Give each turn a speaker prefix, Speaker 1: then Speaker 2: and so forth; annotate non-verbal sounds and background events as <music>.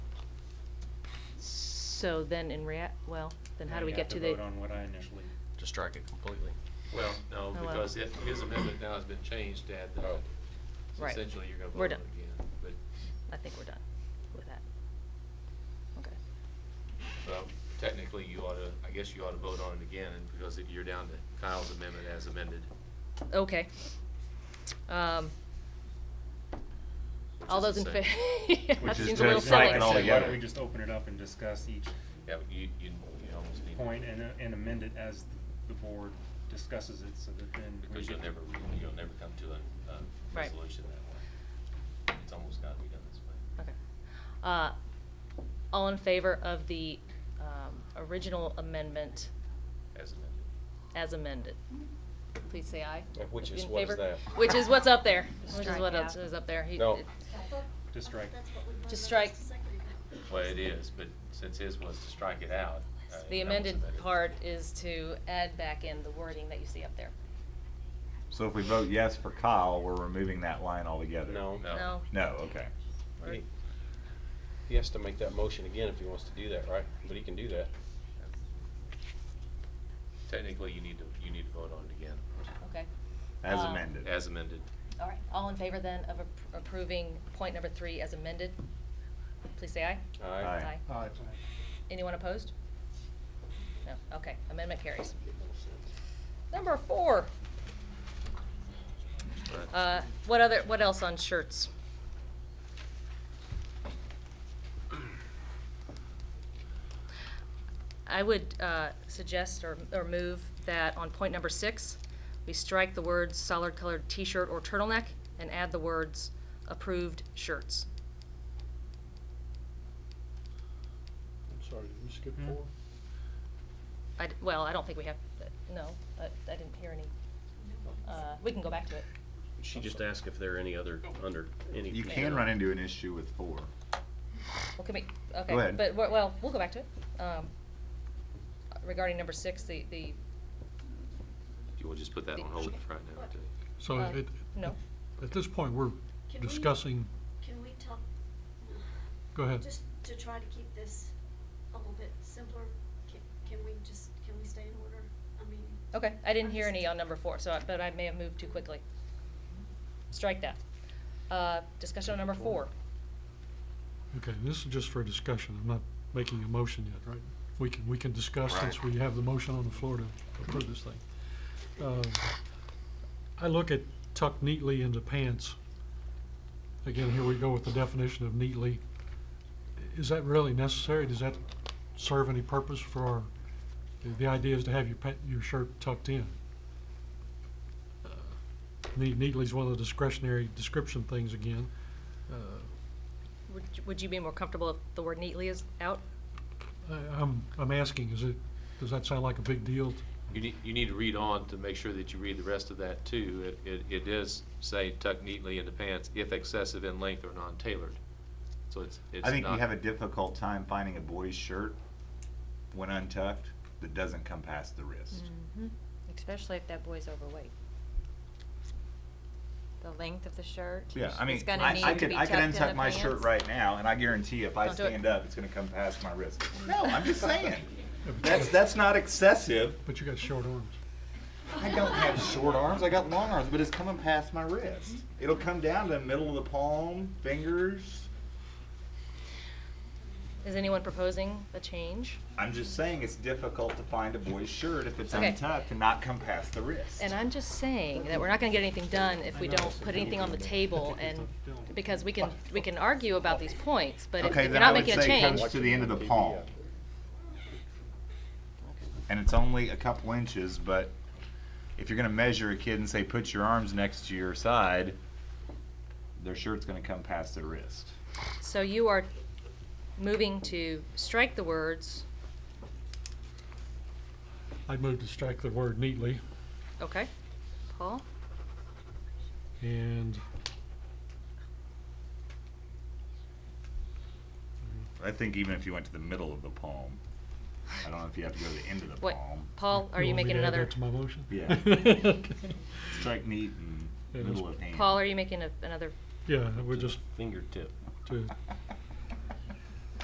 Speaker 1: So then in rea, well, then how
Speaker 2: Now
Speaker 1: do we
Speaker 2: you
Speaker 1: get to
Speaker 2: have
Speaker 1: the?
Speaker 2: vote on what I <laughs> initially,
Speaker 3: to strike it completely.
Speaker 4: Well, no,
Speaker 1: Oh, well.
Speaker 4: because it, his amendment now has been changed to add that.
Speaker 3: Oh.
Speaker 4: So
Speaker 1: Right.
Speaker 4: Essentially, you're gonna
Speaker 1: We're
Speaker 4: vote on it
Speaker 1: done.
Speaker 4: again, but,
Speaker 1: I think we're done with that. Okay.
Speaker 4: well, technically, you ought to, I guess you ought to vote on it again, and because it- you're down to Kyle's amendment as amended.
Speaker 1: Okay. Um,
Speaker 4: which
Speaker 1: all
Speaker 4: is
Speaker 1: those in
Speaker 4: the
Speaker 1: favor?
Speaker 4: same.
Speaker 1: <laughs> That
Speaker 5: Which is
Speaker 1: seems a
Speaker 5: to
Speaker 1: little
Speaker 5: strike
Speaker 1: silly.
Speaker 5: it all
Speaker 2: So Why
Speaker 5: together.
Speaker 2: don't we just open it up and discuss each
Speaker 4: Yeah, but you, you, you almost need.
Speaker 2: point and, uh, and amend it as the board discusses it so that then. we
Speaker 4: Because you'll
Speaker 2: get-
Speaker 4: never, you'll never come to a, a
Speaker 1: Right.
Speaker 4: resolution that way. It's almost gotta be done this way.
Speaker 1: Okay. Uh, all in favor of the, um, original amendment
Speaker 4: As amended.
Speaker 1: as amended? Please say aye.
Speaker 3: Yeah, which
Speaker 1: If
Speaker 3: is
Speaker 1: in
Speaker 3: what is
Speaker 1: favor.
Speaker 3: that?
Speaker 1: Which is what's
Speaker 6: <laughs>
Speaker 1: up there, which is
Speaker 6: Strike
Speaker 1: what
Speaker 6: out.
Speaker 1: else is up there. He-
Speaker 3: No.
Speaker 1: it-
Speaker 2: To strike.
Speaker 1: Just strike.
Speaker 4: Well, it is, but since his was to strike it out. uh, that
Speaker 1: The
Speaker 4: was
Speaker 1: amended
Speaker 4: amended.
Speaker 1: part is to add back in the wording that you see up there.
Speaker 5: So if we vote yes for Kyle, we're removing that line altogether?
Speaker 3: No.
Speaker 1: No?
Speaker 5: No, okay.
Speaker 1: Or-
Speaker 3: He- He has to make that motion again if he wants to do that, right? But he can do that.
Speaker 4: Technically, you need to, you need to vote on it again,
Speaker 1: Okay.
Speaker 5: As
Speaker 1: Um,
Speaker 5: amended.
Speaker 4: as amended.
Speaker 1: All right, all in favor then of appro- approving point number three as amended? Please say aye.
Speaker 3: Aye.
Speaker 5: Aye.
Speaker 1: Anyone opposed? No, okay, amendment carries. Number four.
Speaker 4: Right.
Speaker 1: Uh, what other, what else on shirts? I would, uh, suggest or, or move that on point number six, we strike the words solid colored t-shirt or turtleneck and add the words approved shirts.
Speaker 7: I'm sorry, did we skip
Speaker 2: Hmm.
Speaker 7: four?
Speaker 1: I, d- well, I don't think we have, uh, no, I, I didn't hear any, uh, we can go back to it.
Speaker 3: She just asked if there are any other, under, any.
Speaker 5: You can run into an issue with four.
Speaker 1: Well, can we, okay,
Speaker 5: ahead.
Speaker 1: but, we're- well, we'll go back to it. Um, regarding number six, the, the,
Speaker 4: You will just put that on hold for right now, too.
Speaker 7: So
Speaker 1: Uh,
Speaker 7: at,
Speaker 1: no,
Speaker 7: at this point, we're
Speaker 8: Can we-
Speaker 7: discussing,
Speaker 8: Can we talk, uh,
Speaker 7: go ahead.
Speaker 8: just to try to keep this a little bit simpler, can, can we just, can we stay in order? I mean.
Speaker 1: okay, I didn't hear any on number four, so, I- but I may have moved too quickly. Strike that. Uh, discussion on number four.
Speaker 7: Okay, this is just for discussion. I'm not making a motion yet, right? We can, we can discuss
Speaker 5: Right.
Speaker 7: since we have the motion on the floor to approve this thing. Uh, I look at tucked neatly into pants. Again, here we go with the definition of neatly. Is that really necessary? Does that serve any purpose for, our- the, the idea is to have your pa- your shirt tucked in? Ne- Neatly is one of the discretionary description things again. Uh,
Speaker 1: Would, you- would you be more comfortable if the word neatly is out?
Speaker 7: I, I'm, I'm asking, is it, does that sound like a big deal?
Speaker 4: You need, you need to read on to make sure that you read the rest of that, too. It, it, it does say tuck neatly into pants if excessive in length or non-tailored. So it's, it's not.
Speaker 5: I think you have a difficult time finding a boy's shirt when untucked that doesn't come past the wrist.
Speaker 1: Mm-hmm.
Speaker 6: Especially if that boy's overweight. The length of the shirt.
Speaker 5: Yeah, I mean,
Speaker 6: It's gonna
Speaker 5: I, I
Speaker 6: need to
Speaker 5: could,
Speaker 6: be
Speaker 5: I could
Speaker 6: tucked in the
Speaker 5: untuck my shirt
Speaker 6: pants.
Speaker 5: right now and I guarantee if I
Speaker 1: Don't do it.
Speaker 5: stand up, it's gonna come past my wrist. No, I'm <laughs> just saying. That's, that's not excessive.
Speaker 7: But you got short arms.
Speaker 5: I don't have short arms. I got long arms, but it's coming past my wrist. It'll come down to the middle of the palm, fingers.
Speaker 1: Is anyone proposing a change?
Speaker 5: I'm just saying it's difficult to find a boy's shirt if it's
Speaker 1: Okay.
Speaker 5: untucked and not come past the wrist.
Speaker 1: And I'm just saying that we're not gonna get anything done if we don't put anything on the table and, because we can, we can argue about these points, but if
Speaker 5: okay,
Speaker 1: if we're
Speaker 5: then I
Speaker 1: not
Speaker 5: would
Speaker 1: making a
Speaker 5: say
Speaker 1: change.
Speaker 5: comes to the end of the palm. And it's only a couple inches, but if you're gonna measure a kid and say put your arms next to your side, their shirt's gonna come past their wrist.
Speaker 1: So you are moving to strike the words,
Speaker 7: I'd move to strike the word neatly
Speaker 1: okay, Paul?
Speaker 7: and
Speaker 5: I think even if you went to the middle of the palm, I don't know if you have to go to the end of the
Speaker 1: What,
Speaker 5: palm.
Speaker 1: Paul, are you
Speaker 7: want me
Speaker 1: making
Speaker 7: to add
Speaker 1: another,
Speaker 7: that to my motion?
Speaker 5: Yeah.
Speaker 7: <laughs> Okay.
Speaker 5: Strike neat and
Speaker 7: Yeah,
Speaker 5: middle
Speaker 7: that's-
Speaker 5: of hand.
Speaker 1: Paul, are you making a- another,
Speaker 7: Yeah, we're just
Speaker 3: Fingertip.
Speaker 7: to